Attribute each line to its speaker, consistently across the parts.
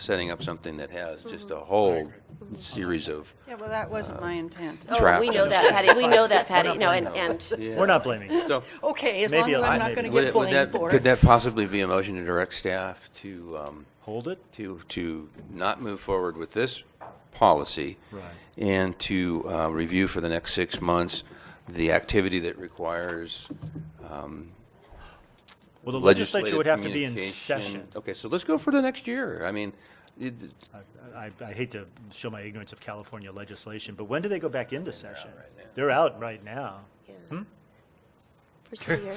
Speaker 1: setting up something that has just a
Speaker 2: Mm-hmm.
Speaker 1: whole series of,
Speaker 3: Yeah, well, that wasn't my intent.
Speaker 1: Trapped
Speaker 4: Oh, we
Speaker 1: in
Speaker 4: know
Speaker 1: a
Speaker 4: that, Patty, we know that, Patty, no, and, and,
Speaker 1: yeah.
Speaker 2: We're not blaming you.
Speaker 1: So,
Speaker 3: Okay, as long
Speaker 2: Maybe
Speaker 3: as
Speaker 2: a lot,
Speaker 3: I'm not
Speaker 2: maybe.
Speaker 3: going to
Speaker 1: would
Speaker 3: get
Speaker 1: it- would
Speaker 3: blamed
Speaker 1: that,
Speaker 3: for
Speaker 1: could
Speaker 3: it.
Speaker 1: that possibly be a motion to direct staff to, um,
Speaker 2: Hold it.
Speaker 1: to, to not move forward with this policy?
Speaker 2: Right.
Speaker 1: And to, uh, review for the next six months the activity that requires
Speaker 2: Well, the
Speaker 1: legislative
Speaker 2: legislature would have to be in
Speaker 1: communication.
Speaker 2: session.
Speaker 1: Okay, so let's go for the next year. I mean, it,
Speaker 2: I, I hate to show my ignorance of California legislation, but when do they go back into session? They're out right now.
Speaker 4: first of the year.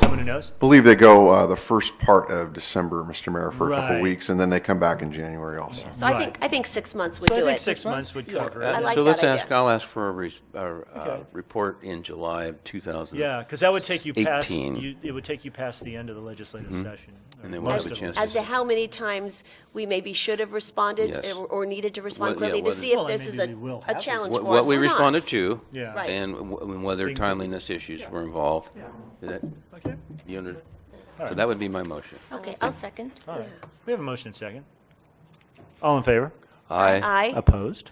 Speaker 2: Someone who knows?
Speaker 5: believe they go uh, the first part of December, Mr. Mayor, for a couple
Speaker 2: Right.
Speaker 5: weeks, and then they come back in January also.
Speaker 4: So I
Speaker 2: Right.
Speaker 4: think, I think six months would
Speaker 2: So I
Speaker 4: do
Speaker 2: think
Speaker 4: it.
Speaker 2: six months would cover
Speaker 1: Uh,
Speaker 2: it.
Speaker 4: like
Speaker 1: So
Speaker 4: that
Speaker 1: let's ask,
Speaker 4: idea.
Speaker 1: I'll ask for a, res- a, uh
Speaker 2: Okay.
Speaker 1: report in July of 2000.
Speaker 2: Yeah, because that would take you past,
Speaker 1: 18.
Speaker 2: you- it would take you past the end of the legislative session. or
Speaker 1: Mm-hmm. And then we'll have
Speaker 2: most
Speaker 1: a
Speaker 2: of it.
Speaker 1: chance
Speaker 4: As to how many times we maybe should have responded
Speaker 1: Yes.
Speaker 4: or- or needed to respond
Speaker 1: What- yeah,
Speaker 4: quickly to
Speaker 1: what
Speaker 4: see
Speaker 1: is-
Speaker 4: if
Speaker 2: Well, and
Speaker 4: this is
Speaker 2: maybe
Speaker 4: a,
Speaker 2: we will
Speaker 4: a
Speaker 2: have to.
Speaker 4: challenge
Speaker 1: What
Speaker 4: for us
Speaker 1: what we
Speaker 4: or not.
Speaker 1: responded to.
Speaker 2: Yeah.
Speaker 4: Right.
Speaker 1: And wh- and whether
Speaker 2: Things that-
Speaker 1: timeliness issues were involved. Did that-
Speaker 2: Okay,
Speaker 1: you under- So
Speaker 2: right.
Speaker 1: that would be my motion.
Speaker 4: Oh,
Speaker 6: Okay, I'll second.
Speaker 2: all right. We have a motion and second. All in favor?
Speaker 1: Aye.
Speaker 4: Aye.
Speaker 2: Opposed?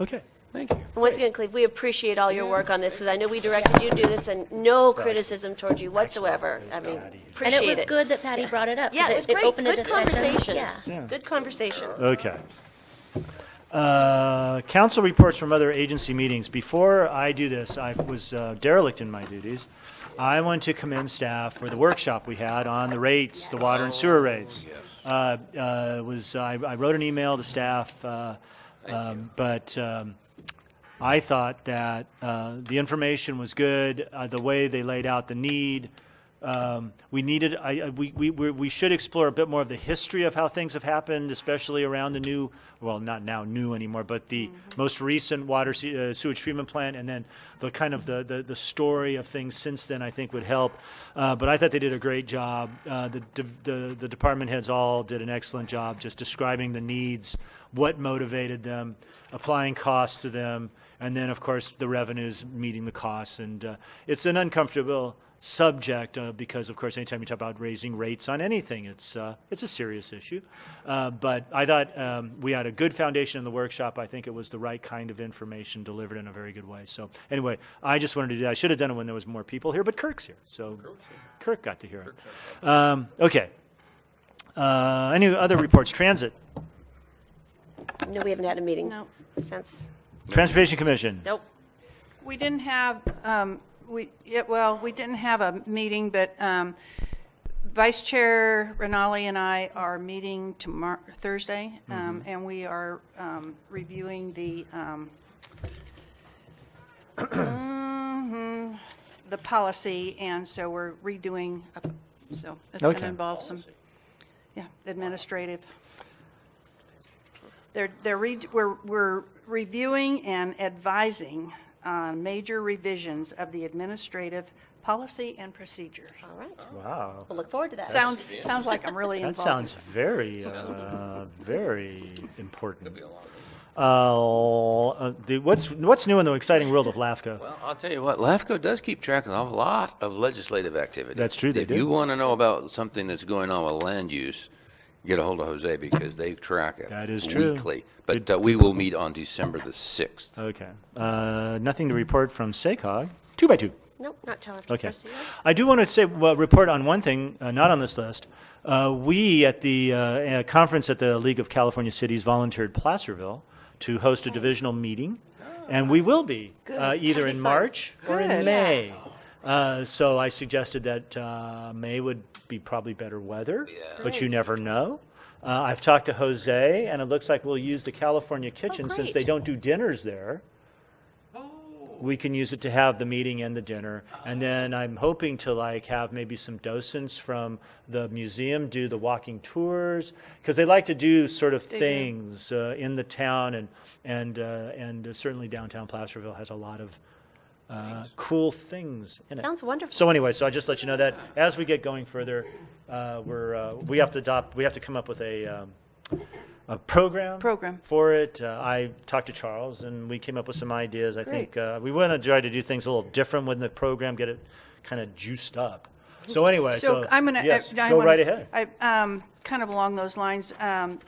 Speaker 2: Okay.
Speaker 1: Thank you.
Speaker 4: And once again, Cleve, we appreciate all your work on this because I know we directed you to do this and no criticism towards you whatsoever. I mean,
Speaker 6: And it
Speaker 4: appreciate
Speaker 6: was
Speaker 4: it.
Speaker 6: good that Patty brought it up. 'cause
Speaker 4: Yeah, it was great.
Speaker 6: opened a
Speaker 4: Good
Speaker 6: discussion.
Speaker 4: conversation.
Speaker 6: Yeah.
Speaker 2: Yeah.
Speaker 4: Good conversation.
Speaker 2: Okay. Uh, Council reports from other agency meetings. Before I do this, I was uh, derelict in my duties. I want to commend staff for the workshop we had on the rates, the water and sewer rates. Uh, uh, Was, I I wrote an email to staff, uh, um, but um, I thought that uh, the information was good, uh, the way they laid out the need. Um, we needed, I, I- we, we, we we should explore a bit more of the history of how things have happened, especially around the new, well, not now new anymore, but the most recent water se- uh, sewage treatment plant, and then the kind of the, the, the story of things since then, I think would help. Uh, but I thought they did a great job. Uh, the, de- the, the department heads all did an excellent job just describing the needs, what motivated them, applying costs to them, and then, of course, the revenues meeting the costs. And uh, it's an uncomfortable subject uh, because, of course, anytime you talk about raising rates on anything, it's uh, it's a serious issue. Uh, but I thought um, we had a good foundation in the workshop. I think it was the right kind of information delivered in a very good way. So anyway, I just wanted to do that. I should have done it when there was more people here, but Kirk's here, so Kirk got to hear it. Um, okay. Uh, any other reports? Transit,
Speaker 4: No, we haven't had a meeting
Speaker 3: No.
Speaker 4: since,
Speaker 2: Transportation Commission.
Speaker 4: nope.
Speaker 3: We didn't have, um, we, yeah, well, we didn't have a meeting, but um, Vice Chair Rinaldi and I are meeting tomorrow, Thursday, um, and we are um, reviewing the, um, mhm, the policy, and so we're redoing, a- so it's going to
Speaker 2: Okay.
Speaker 3: involve some, yeah, administrative. They're, they're, re- we're, we're reviewing and advising on major revisions of the administrative policy and procedure.
Speaker 4: All right.
Speaker 2: Wow,
Speaker 4: We'll look forward to that.
Speaker 3: Sounds, sounds like I'm really
Speaker 2: that
Speaker 3: involved.
Speaker 2: sounds very, uh, very important. Uh, uh, the, what's what's new in the exciting world of LAFCO?
Speaker 1: Well, I'll tell you what, LAFCO does keep track of a lot of legislative activity.
Speaker 2: That's true, they
Speaker 1: If you
Speaker 2: do.
Speaker 1: want to know about something that's going on with land use, get a hold of Jose because they track it.
Speaker 2: That is true.
Speaker 1: Weekly. But uh, we will meet on December the 6th.
Speaker 2: Okay, uh, nothing to report from SACOG. Two by two.
Speaker 4: Nope, not till after the
Speaker 2: Okay.
Speaker 4: first of the year.
Speaker 2: I do want to say, well, report on one thing, uh, not on this list. Uh, we at the uh, uh, conference at the League of California Cities volunteered Placerville to host a divisional meeting, and we will be uh, either in March or in
Speaker 3: Good.
Speaker 2: May. Uh, so I suggested that uh, May would be probably better weather, but you never know. Uh, I've talked to Jose, and it looks like we'll use the California kitchen since they
Speaker 4: great.
Speaker 2: don't do dinners there we can use it to have the meeting and the dinner. And then I'm hoping to like have maybe some docents from the museum do the walking tours because they like to do sort of things uh, in the town and and uh, and certainly downtown Placerville has a lot of uh, cool things in it.
Speaker 4: Sounds wonderful.
Speaker 2: So anyway, so I just let you know that as we get going further, uh, we're uh, we have to adopt we have to come up with a. Um, a program
Speaker 3: Program.
Speaker 2: for it. Uh, I talked to Charles, and we came up with some ideas. I think uh, we want to try to do things a little different with the program, get it kind of juiced up. So anyway, so,
Speaker 3: So I'm going to.
Speaker 2: yes, go right ahead.
Speaker 3: I, um, kind of along those lines, um,